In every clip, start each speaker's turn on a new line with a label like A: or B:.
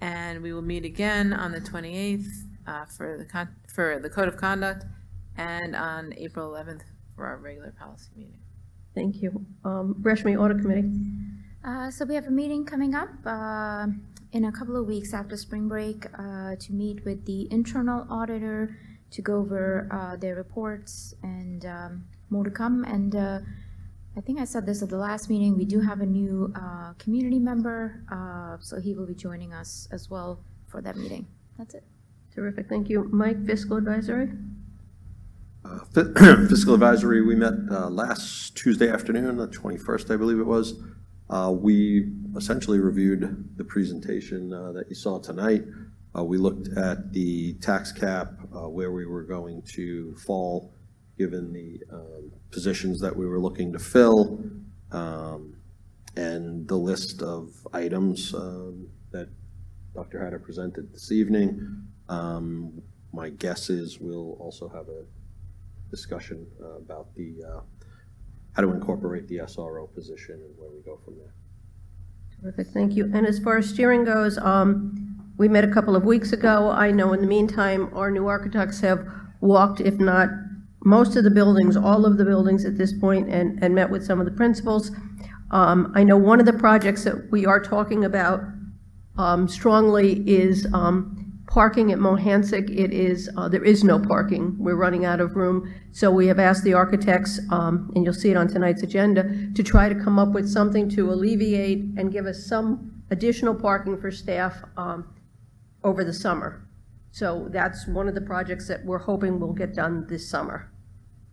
A: and we will meet again on the 28th uh, for the, con- for the code of conduct and on April 11th for our regular policy meeting.
B: Thank you. Um, Rashmi, Audit Committee.
C: Uh, So we have a meeting coming up uh, in a couple of weeks after spring break uh, to meet with the internal auditor to go over uh, their reports and um, more to come. And uh, I think I said this at the last meeting, we do have a new uh, community member, uh, so he will be joining us as well for that meeting. That's it.
B: Terrific, thank you. Mike, Fiscal Advisory.
D: Uh, fi- Fiscal Advisory, we met uh, last Tuesday afternoon, the 21st, I believe it was. Uh, We essentially reviewed the presentation uh, that you saw tonight. Uh, We looked at the tax cap, uh, where we were going to fall, given the um, positions that we were looking to fill, um, and the list of items um, that Dr. Hatter presented this evening. Um, My guess is we'll also have a discussion uh, about the, uh, how to incorporate the SRO position and where we go from there.
B: Terrific, thank you. And as far as steering goes, um, we met a couple of weeks ago. I know in the meantime, our new architects have walked, if not most of the buildings, all of the buildings at this point, and, and met with some of the principals. Um, I know one of the projects that we are talking about um, strongly is um, parking at Mohansick. It is, uh, there is no parking. We're running out of room. So we have asked the architects, um, and you'll see it on tonight's agenda, to try to come up with something to alleviate and give us some additional parking for staff um, over the summer. So that's one of the projects that we're hoping will get done this summer.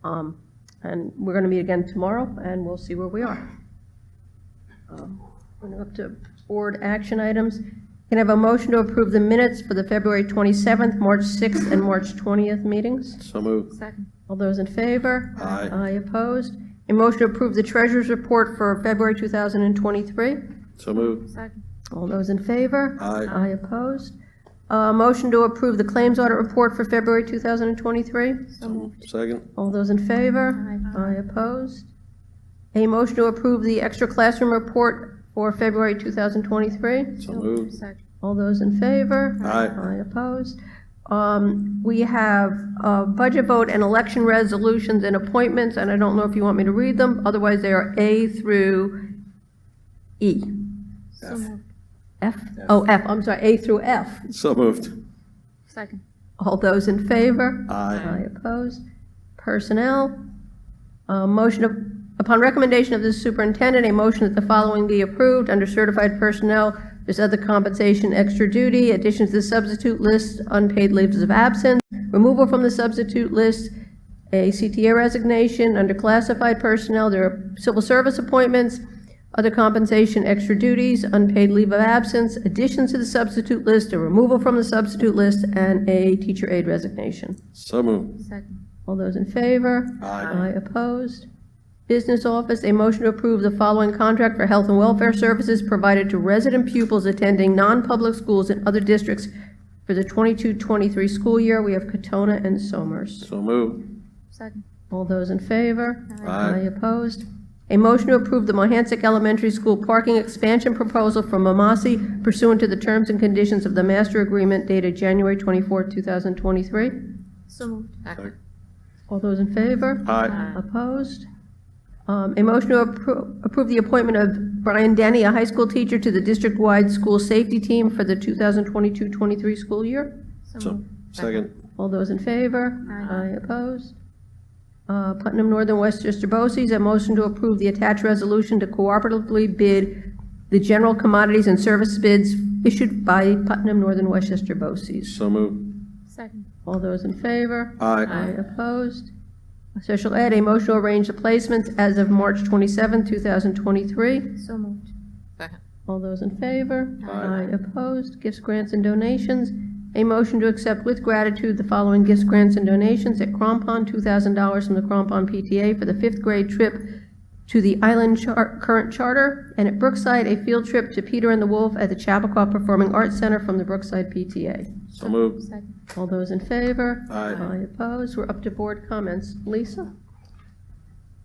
B: Um, And we're going to meet again tomorrow, and we'll see where we are. We're up to board action items. Can I have a motion to approve the minutes for the February 27th, March 6th, and March 20th meetings?
D: So moved.
A: Second.
B: All those in favor?
D: Aye.
B: Aye opposed? A motion to approve the treasurer's report for February 2023?
D: So moved.
A: Second.
B: All those in favor?
D: Aye.
B: Aye opposed? A motion to approve the claims audit report for February 2023?
D: Second.
B: All those in favor? Aye opposed? A motion to approve the extra classroom report for February 2023?
D: So moved.
B: All those in favor?
D: Aye.
B: Aye opposed. Um, We have uh, budget vote and election resolutions and appointments, and I don't know if you want me to read them, otherwise they are A through E. F? Oh, F, I'm sorry, A through F.
D: So moved.
A: Second.
B: All those in favor?
D: Aye.
B: Aye opposed. Personnel, uh, motion of, upon recommendation of the superintendent, a motion that the following be approved under certified personnel. There's other compensation, extra duty, additions to the substitute list, unpaid leaves of absence, removal from the substitute list, a CTA resignation, under classified personnel, there are civil service appointments, other compensation, extra duties, unpaid leave of absence, additions to the substitute list, a removal from the substitute list, and a teacher aide resignation.
D: So moved.
A: Second.
B: All those in favor?
D: Aye.
B: Aye opposed. Business Office, a motion to approve the following contract for health and welfare services provided to resident pupils attending non-public schools in other districts for the 22-23 school year. We have Katona and Somers.
D: So moved.
A: Second.
B: All those in favor?
D: Aye.
B: opposed. A motion to approve the Mohansick Elementary School parking expansion proposal from Mamasi pursuant to the terms and conditions of the master agreement dated January 24, 2023.
C: So moved.
A: Second.
B: All those in favor?
D: Aye.
B: Opposed? Um, A motion to appro- approve the appointment of Brian Denny, a high school teacher, to the district-wide school safety team for the 2022-23 school year.
D: So, second.
B: All those in favor? Aye. opposed? Uh, Putnam Northern Westchester BOCES, a motion to approve the attached resolution to cooperatively bid the general commodities and service bids issued by Putnam Northern Westchester BOCES.
D: So moved.
A: Second.
B: All those in favor?
D: Aye.
B: Opposed? Social Ed, a motion to arrange the placements as of March 27, 2023.
C: So moved.
A: Second.
B: All those in favor?
D: Aye.
B: Opposed? Gifts, grants, and donations. A motion to accept with gratitude the following gifts, grants, and donations at Crompon, $2,000 from the Crompon PTA for the fifth grade trip to the Island Char- Current Charter, and at Brookside, a field trip to Peter and the Wolf at the Chappaqua Performing Arts Center from the Brookside PTA.
D: So moved.
C: Second.
B: All those in favor?
D: Aye.
B: Aye opposed. We're up to board comments. Lisa?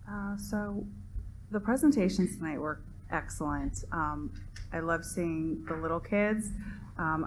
E: Uh, So the presentations tonight were excellent. Um, I love seeing the little kids. Um,